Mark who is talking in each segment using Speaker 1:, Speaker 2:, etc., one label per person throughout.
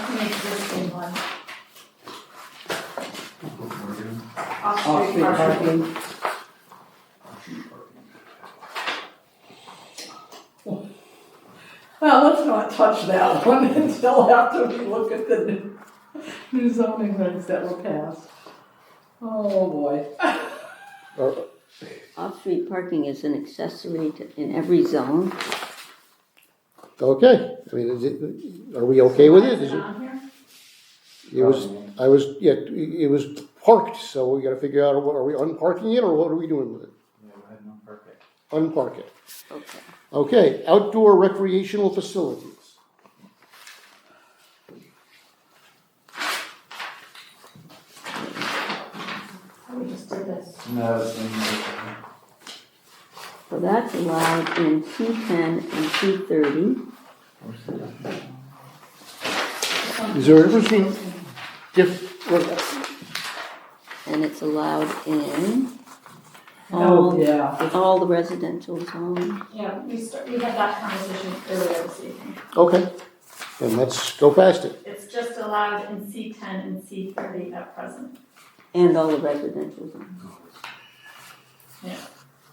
Speaker 1: existing one,
Speaker 2: off-street
Speaker 1: off-street parking.
Speaker 2: parking. Well, let's not touch that one until after we look at the new- new zoning regs that were passed. Oh, boy.
Speaker 3: Off-street parking is an accessory to, in every zone.
Speaker 4: Okay, I mean, is it, are we okay with it? Is it,
Speaker 1: On here?
Speaker 4: it was, I was, yeah, it was parked, so we gotta figure out, what- are we unparking it or what are we doing with it? Unpark it.
Speaker 3: Okay.
Speaker 4: Okay, outdoor recreational facilities.
Speaker 1: We just did this.
Speaker 5: No, it's in there.
Speaker 3: So that's allowed in C ten and C thirty.
Speaker 4: Is there a difference between diff,
Speaker 3: And it's allowed in
Speaker 2: Oh,
Speaker 3: all,
Speaker 2: yeah.
Speaker 3: all the residential zones.
Speaker 1: Yeah, we start, we had that conversation earlier this evening.
Speaker 4: okay, then let's go past it.
Speaker 1: It's just allowed in C ten and C thirty at present.
Speaker 3: And all the residential zones.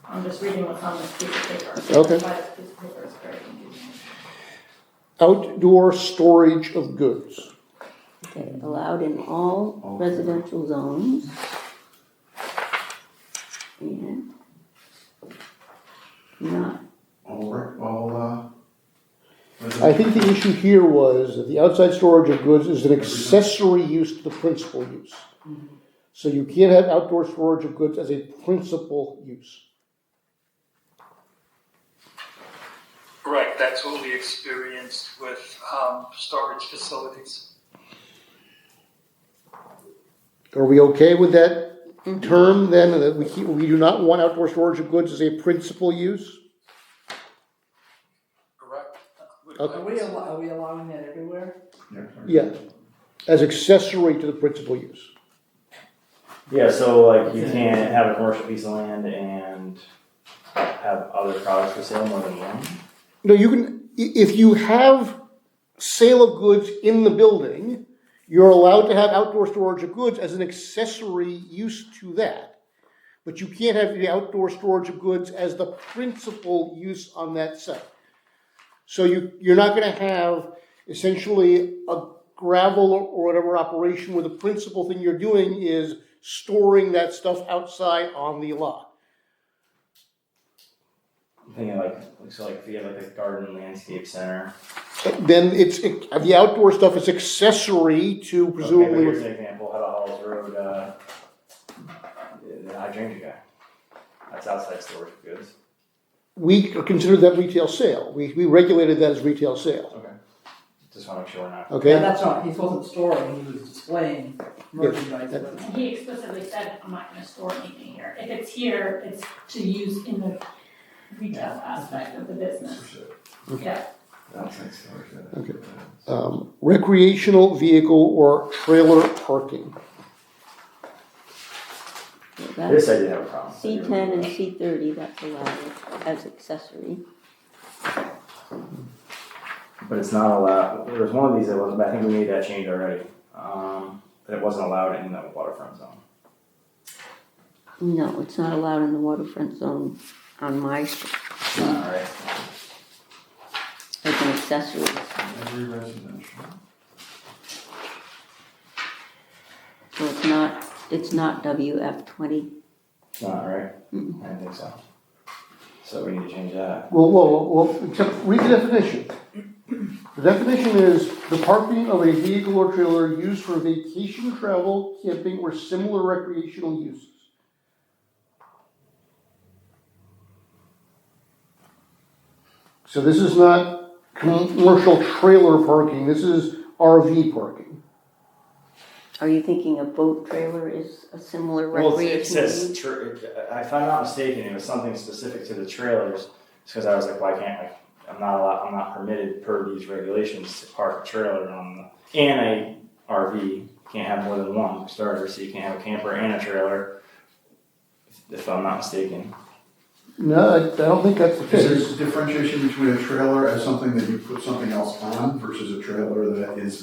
Speaker 1: I'm just reading what's on this piece of paper.
Speaker 4: Okay.
Speaker 1: Why this piece of paper is very confusing.
Speaker 4: Outdoor storage of goods.
Speaker 3: Okay, allowed in all residential zones. And not,
Speaker 5: All, re- all, uh.
Speaker 4: I think the issue here was that the outside storage of goods is an accessory use to the principal use. So you can't have outdoor storage of goods as a principal use.
Speaker 6: Right, that's what we experienced with um, storage facilities.
Speaker 4: Are we okay with that term then, that we keep, we do not want outdoor storage of goods as a principal use?
Speaker 6: Correct.
Speaker 2: Are we, al- are we allowing that everywhere?
Speaker 4: Yeah, as accessory to the principal use.
Speaker 7: Yeah, so like you can't have a commercial piece of land and have other products for sale more than one.
Speaker 4: No, you can, i- if you have sale of goods in the building, you're allowed to have outdoor storage of goods as an accessory use to that. But you can't have the outdoor storage of goods as the principal use on that site. So you, you're not gonna have essentially a gravel or whatever operation where the principal thing you're doing is storing that stuff outside on the lot.
Speaker 7: I'm thinking like, like, so like if you have like a garden landscape center.
Speaker 4: Then it's, it- the outdoor stuff is accessory to
Speaker 7: Okay,
Speaker 4: presumably
Speaker 7: but
Speaker 4: what's
Speaker 7: here's an example, Huddle Halls Road, uh, the hydrangea guy. That's outside storage of goods.
Speaker 4: We consider that retail sale. We, we regulated that as retail sale,
Speaker 7: Just wanna make sure we're not.
Speaker 2: Yeah,
Speaker 4: okay?
Speaker 2: that's not, he wasn't storing, he was displaying merchandise. but-
Speaker 1: He explicitly said, I'm not gonna store anything here. If it's here, it's to use in the retail aspect of the business. Yeah,
Speaker 5: Outside storage.
Speaker 4: Okay. Um, recreational vehicle or trailer parking.
Speaker 3: so that's
Speaker 7: This I did have a problem. with.
Speaker 3: C ten and C thirty, that's allowed as accessory.
Speaker 7: But it's not allowed, there was one of these that wasn't, but I think we made that change already, um, that it wasn't allowed in the waterfront zone.
Speaker 3: No, it's not allowed in the waterfront zone on my,
Speaker 7: Alright,
Speaker 3: as an accessory.
Speaker 5: Every residential.
Speaker 3: So it's not, it's not WF twenty.
Speaker 7: it's not, right? I didn't think so. So we need to change that.
Speaker 4: Well, well, well, except read the definition. The definition is the parking of a vehicle or trailer used for vacation, travel, camping, or similar recreational uses. So this is not commercial trailer parking, this is RV parking.
Speaker 3: Are you thinking a boat trailer is a similar
Speaker 7: Well,
Speaker 3: recreational?
Speaker 7: it says,
Speaker 3: use?
Speaker 7: tr- if I'm not mistaken, it was something specific to the trailers, because I was like, why can't I? I'm not allowed, I'm not permitted per these regulations to park a trailer on, the and a RV, can't have more than one starter, so you can't have a camper and a trailer, if I'm not mistaken.
Speaker 4: No, I I don't think that's the
Speaker 5: Is
Speaker 4: case.
Speaker 5: there differentiation between a trailer as something that you put something else on versus a trailer that is